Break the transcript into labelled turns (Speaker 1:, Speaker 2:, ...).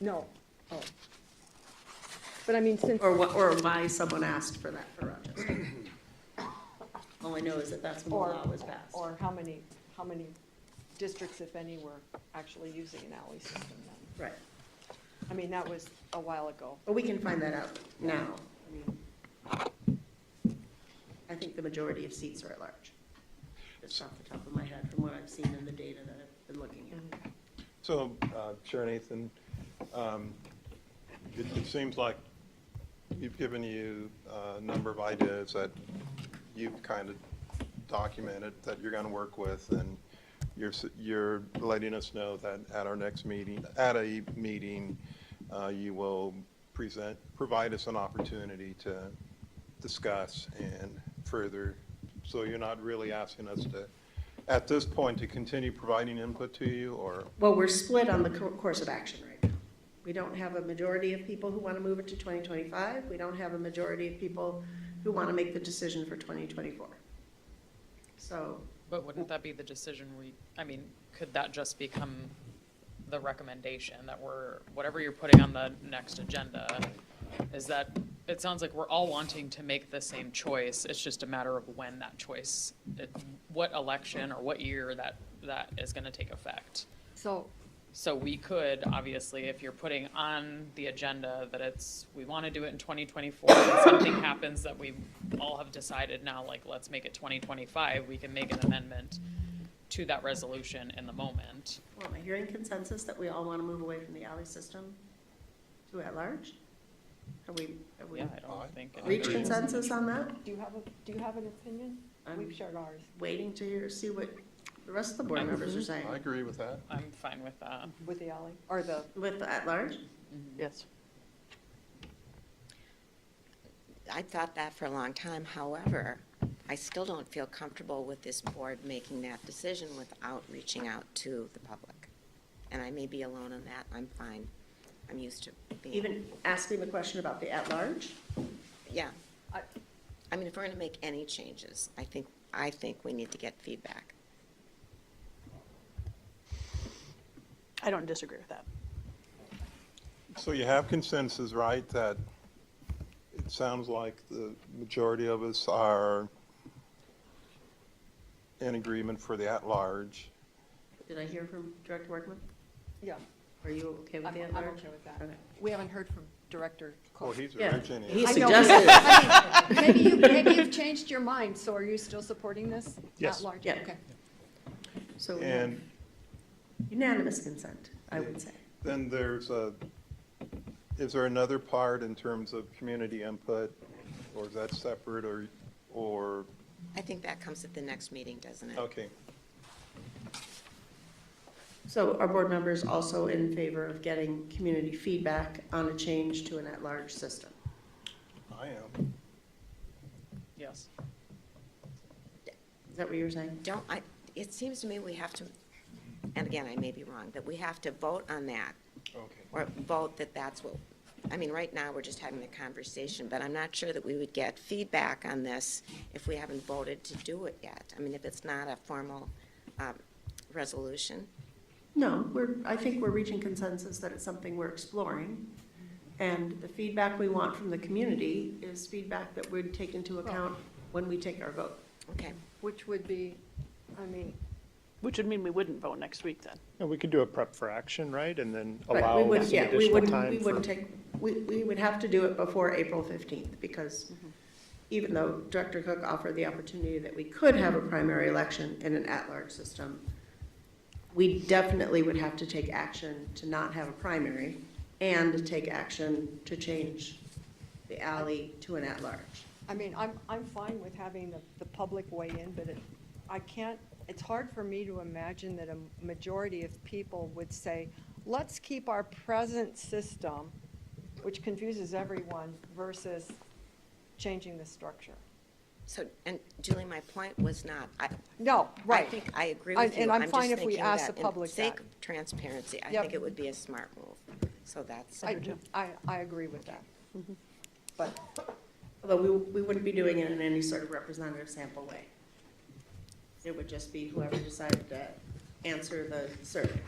Speaker 1: No, oh. But I mean, since,
Speaker 2: Or what, or why someone asked for that for Rochester. All I know is that that's when the
Speaker 1: or,
Speaker 2: law was passed.
Speaker 1: or how many, how many districts, if any, were actually using an alley system then?
Speaker 2: Right,
Speaker 1: I mean, that was a while ago.
Speaker 2: but we can find that out now. I mean, I think the majority of seats are at large. Just off the top of my head from what I've seen in the data that I've been looking
Speaker 1: Mm-hmm.
Speaker 2: at.
Speaker 3: So, uh, Chair Nathan, um, it it seems like we've given you a number of ideas that you've kind of documented that you're going to work with, and you're, s- you're letting us know that at our next meeting, at a meeting, uh, you will present, provide us an opportunity to discuss and further, so you're not really asking us to, at this point, to continue providing input to you, or
Speaker 2: Well, we're split on the co- course of action right now. We don't have a majority of people who want to move it to 2025. We don't have a majority of people who want to make the decision for 2024. So
Speaker 4: But wouldn't that be the decision we, I mean, could that just become the recommendation that we're, whatever you're putting on the next agenda, is that, it sounds like we're all wanting to make the same choice, it's just a matter of when that choice, it- what election or what year that, that is gonna take effect.
Speaker 1: So,
Speaker 4: So we could, obviously, if you're putting on the agenda that it's, we want to do it in 2024, and something happens that we all have decided now, like, let's make it 2025, we can make an amendment to that resolution in the moment.
Speaker 2: Well, am I hearing consensus that we all want to move away from the alley system to at-large? Have we, have we
Speaker 4: Yeah, I don't think.
Speaker 2: reached
Speaker 4: anybody-
Speaker 2: consensus on that?
Speaker 1: do you have a, do you have an opinion? We've
Speaker 2: I'm
Speaker 1: shared ours.
Speaker 2: waiting to hear, see what the rest of the board members are saying.
Speaker 3: I agree with that.
Speaker 4: I'm fine with that.
Speaker 1: With the alley, or the,
Speaker 2: With the at-large?
Speaker 1: yes.
Speaker 5: I thought that for a long time, however, I still don't feel comfortable with this board making that decision without reaching out to the public. And I may be alone on that, I'm fine, I'm used to being,
Speaker 2: Even asking the question about the at-large?
Speaker 5: yeah.
Speaker 1: I-
Speaker 5: I mean, if we're gonna make any changes, I think, I think we need to get feedback.
Speaker 6: I don't disagree with that.
Speaker 3: So you have consensus, right, that it sounds like the majority of us are in agreement for the at-large.
Speaker 2: Did I hear from Director Workman?
Speaker 1: Yeah,
Speaker 2: Are you okay with
Speaker 1: I'm,
Speaker 2: the
Speaker 1: I'm
Speaker 2: at-large?
Speaker 1: okay with that.
Speaker 2: Okay.
Speaker 1: We haven't heard from Director
Speaker 3: Oh,
Speaker 1: Cook.
Speaker 3: he's
Speaker 2: Yeah.
Speaker 3: originating.
Speaker 2: He
Speaker 1: I know.
Speaker 2: suggested,
Speaker 1: I mean, Maybe you, maybe you've changed your mind, so are you still supporting this?
Speaker 3: Yes.
Speaker 1: At large,
Speaker 2: Yeah.
Speaker 1: okay.
Speaker 2: so we have
Speaker 3: And
Speaker 2: unanimous consent, I would say.
Speaker 3: then there's a, is there another part in terms of community input? Or is that separate or, or,
Speaker 5: I think that comes at the next meeting, doesn't it?
Speaker 3: okay.
Speaker 2: So are board members also in favor of getting community feedback on a change to an at-large system?
Speaker 3: I am.
Speaker 4: Yes.
Speaker 2: Is that what you were saying?
Speaker 5: Don't, I, it seems to me we have to, and again, I may be wrong, that we have to vote on that
Speaker 3: Okay.
Speaker 5: or vote that that's what, I mean, right now, we're just having the conversation, but I'm not sure that we would get feedback on this if we haven't voted to do it yet. I mean, if it's not a formal um, resolution.
Speaker 2: No, we're, I think we're reaching consensus that it's something we're exploring. And the feedback we want from the community is feedback that we'd take into account when we take our vote.
Speaker 5: Okay,
Speaker 1: Which would be, I mean,
Speaker 6: Which would mean we wouldn't vote next week then.
Speaker 7: And we could do a prep for action, right, and then
Speaker 2: Right,
Speaker 7: allow
Speaker 2: we would-
Speaker 7: some
Speaker 2: yeah, we
Speaker 7: additional
Speaker 2: wouldn't-
Speaker 7: time
Speaker 2: We wouldn't
Speaker 7: for.
Speaker 2: take, we, we would have to do it before April 15th, because even though Director Cook offered the opportunity that we could have a primary election in an at-large system, we definitely would have to take action to not have a primary and to take action to change the alley to an at-large.
Speaker 1: I mean, I'm, I'm fine with having the, the public weigh in, but it, I can't, it's hard for me to imagine that a majority of people would say, let's keep our present system, which confuses everyone, versus changing the structure.
Speaker 5: so, and Julie, my point was not, I,
Speaker 1: No,
Speaker 5: I
Speaker 1: right.
Speaker 5: think I agree
Speaker 1: And-
Speaker 5: with you.
Speaker 1: and I'm
Speaker 5: just
Speaker 1: fine if we
Speaker 5: thinking
Speaker 1: ask
Speaker 5: that
Speaker 1: the public
Speaker 5: In sake
Speaker 1: that.
Speaker 5: of transparency, I
Speaker 1: Yep.
Speaker 5: think it would be a smart move, so Mm-hmm. that's.
Speaker 1: I, I, I agree with that. But,
Speaker 2: Although we, we wouldn't be doing it in any sort of representative sample way. It would just be whoever decided to answer the survey.